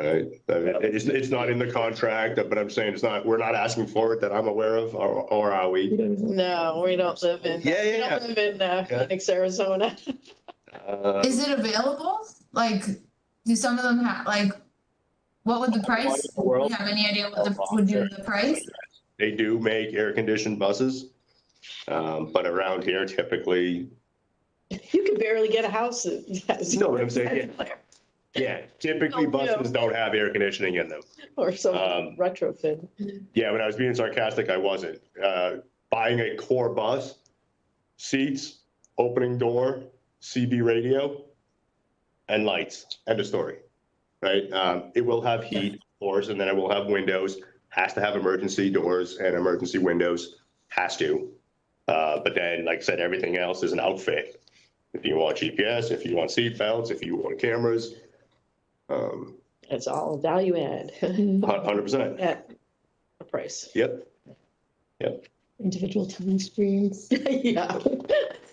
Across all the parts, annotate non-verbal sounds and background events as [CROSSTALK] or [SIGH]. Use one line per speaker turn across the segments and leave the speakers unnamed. Alright, I mean, it's, it's not in the contract, but I'm saying it's not, we're not asking for it that I'm aware of, or, or are we?
No, we don't live in.
Yeah,
We
yeah,
don't live in uh,
Yeah.
Phoenix, Arizona. [LAUGHS]
Uh,
Is it available? Like, do some of them have, like, what would the price?
in the world?
Do you have any idea what the, would you, the price?
They do make air-conditioned buses, um, but around here typically,
You could barely get a house. [LAUGHS] that has-
you know what I'm saying? Yeah, [LAUGHS] Yeah, typically buses don't have air conditioning in them.
Or some
Um,
retrofit.
Yeah, when I was being sarcastic, I wasn't. Uh, buying a core bus, seats, opening door, CB radio, and lights. End of story. Right? Um, it will have heat, of course, and then it will have windows. Has to have emergency doors and emergency windows. Has to. Uh, but then, like I said, everything else is an outfit. If you want GPS, if you want seat belts, if you want cameras, um,
It's all value add. [LAUGHS]
hundred percent.
At a price. [LAUGHS]
Yep.
individual time screens.
Yeah. [LAUGHS]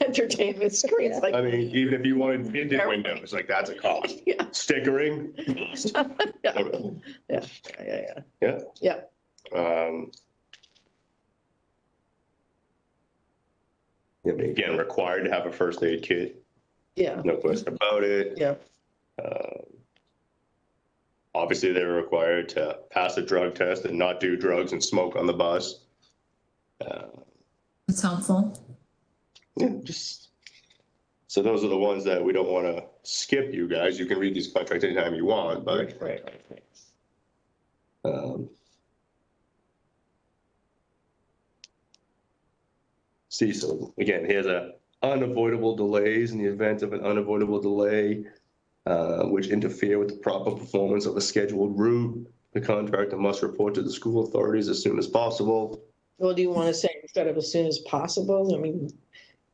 Entertainment screens like.
I mean, even if you wanted tinted windows, like that's a cost.
[LAUGHS] Yeah,
stickering.
[LAUGHS] yeah, yeah, yeah.
Um, yeah, but Again, required to have a first aid kit,
Yeah,
no question about it.
yeah.
Um, Obviously, they're required to pass a drug test and not do drugs and smoke on the bus. Uh,
It's helpful.
Yeah, just, so those are the ones that we don't want to skip, you guys. You can read these contracts anytime you want, but.
Right, right, right, right.
Um, See, so again, here's a unavoidable delays in the event of an unavoidable delay uh, which interfere with the proper performance of a scheduled route. The contractor must report to the school authorities as soon as possible.
Well, do you want to say instead of as soon as possible? I mean,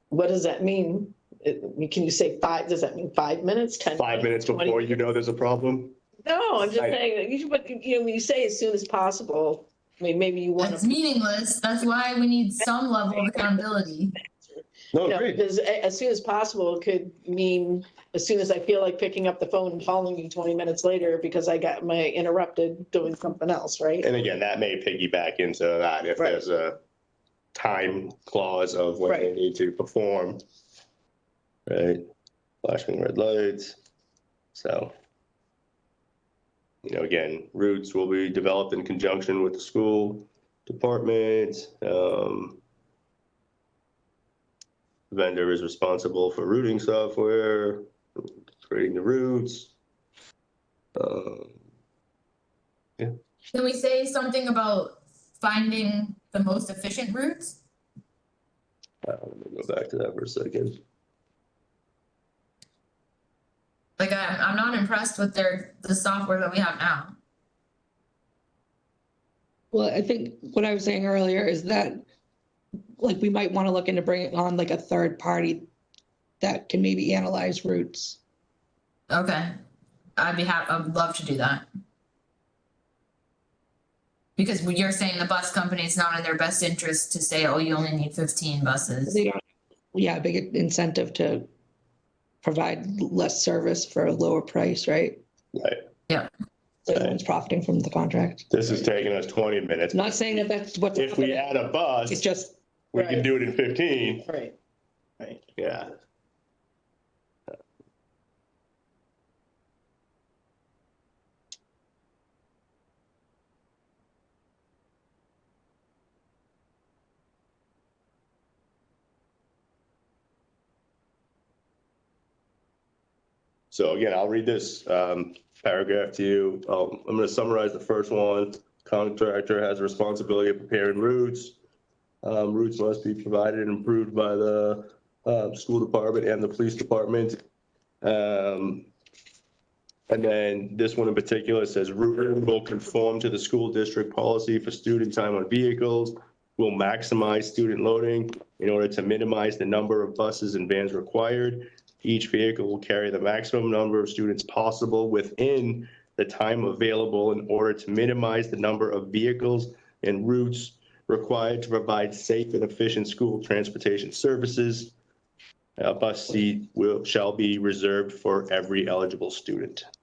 what does that mean? It- Can you say five, does that mean five minutes, 10?
Five minutes before you know there's a problem.
No, I'm just
Right.
saying, that you should, but, you know, when you say as soon as possible, I mean, maybe you want
It's
to.
meaningless. That's why we need some level of accountability.
No, Oh, great.
Because a- as soon as possible could mean as soon as I feel like picking up the phone and calling you twenty minutes later because I got my interrupted doing something else, right?
And again, that may piggyback into that if
Right.
there's a time clause of when they
Right.
need to perform. Right, flashing red lights, so. You know, again, routes will be developed in conjunction with the school department, um. Vendor is responsible for routing software, creating the routes. Um,
Can we say something about finding the most efficient routes?
uh, let me go back to that for a second.
Like, I'm, I'm not impressed with their, the software that we have now.
Well, I think what I was saying earlier is that, like, we might want to look into bringing on like a third party that can maybe analyze routes.
Okay, I'd be happy, I'd love to do that. Because when you're saying the bus company, it's not in their best interest to say, oh, you only need fifteen buses.
They don't, yeah, a big incentive to provide less service for a lower price, right?
Right.
Yeah.
So everyone's profiting from the contract.
This is taking us twenty minutes.
Not saying that that's what's.
If we add a
It's
bus,
just,
we can do it in fifteen.
Right, right.
Yeah. So again, I'll read this um, paragraph to you. Um, I'm going to summarize the first one. Contractor has a responsibility of preparing routes. Um, Routes must be provided and approved by the uh, school department and the police department. Um, And then this one in particular says "Route will conform to the school district policy for student time on vehicles, will maximize student loading in order to minimize the number of buses and vans required. Each vehicle will carry the maximum number of students possible within the time available in order to minimize the number of vehicles and routes required to provide safe and efficient school transportation services. A bus seat will, shall be reserved for every eligible student.